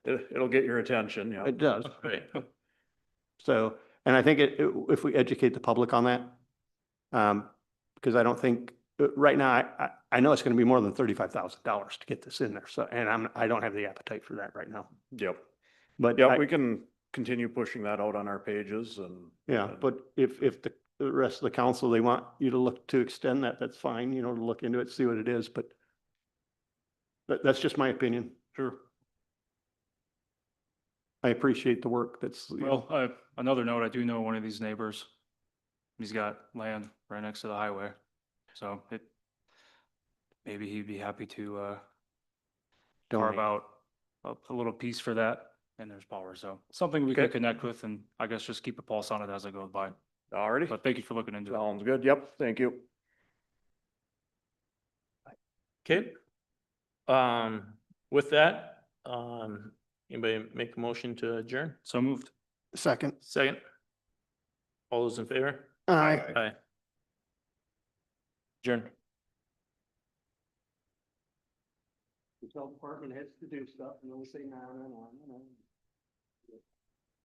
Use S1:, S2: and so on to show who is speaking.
S1: It, it'll get your attention, yeah.
S2: It does.
S1: Right.
S2: So, and I think it, it- if we educate the public on that, um, because I don't think, uh, right now, I, I, I know it's going to be more than thirty-five thousand dollars to get this in there. So, and I'm, I don't have the appetite for that right now.
S1: Yep.
S2: But,
S1: Yeah,
S2: I-
S1: we can continue pushing that out on our pages and.
S2: yeah,
S1: and-
S2: but if, if the the rest of the council, they want you to look to extend that, that's fine, you know, to look into it, see what it is, but that, that's just my opinion.
S1: Sure.
S2: I appreciate the work that's. you know,
S3: Well, uh, another note, I do know one of these neighbors. He's got land right next to the highway, so it, maybe he'd be happy to, uh, carve
S2: donate.
S3: out a, a little piece for that and there's power, so something we could
S1: Okay.
S3: connect with and I guess just keep a pulse on it as I go by.
S1: Alrighty.
S3: But thank you for looking into it.
S1: Sounds good. Yep, thank you.
S4: Okay. Um, with that, um, anybody make a motion to adjourn?
S3: So moved.
S2: Second.
S4: Second? All those in favor?
S2: Aye.
S4: Aye. Adjourn.
S2: The health department has to do stuff and they'll say no, no, no, no.